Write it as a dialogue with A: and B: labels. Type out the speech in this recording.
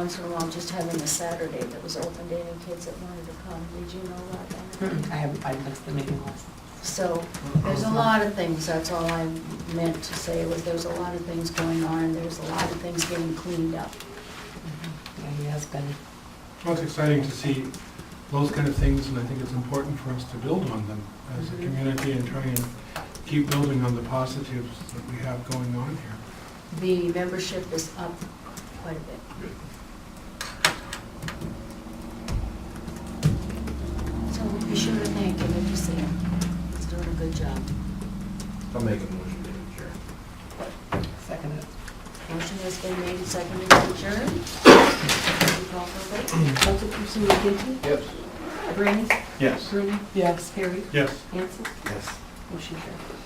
A: Once in a while, just having a Saturday that was open to any kids that wanted to come, did you know
B: I
A: about that?
B: haven't, I missed the meeting last.
A: So, there's a lot of things, that's all I meant to say, was there's a lot of things going on, there's a lot of things getting cleaned up.
B: Yeah, he has been.
C: Well, it's exciting to see those kind of things, and I think it's important for us to build on them as a
A: Mhm.
C: community and try and keep building on the positives that we have going on here.
A: The membership is up quite a bit. So be sure to thank him if you see him. He's doing a good job.
D: I'll make a motion to adjourn.
B: Second it.
A: Motion has been made and seconded to adjourn. Roll call for vote.
E: Councilperson McGinty?
D: Yes.
E: Brand?
C: Yes.
E: Bruni?
B: Yes.
E: Perry?
C: Yes.
E: Hanson?
D: Yes.
E: Motion carried.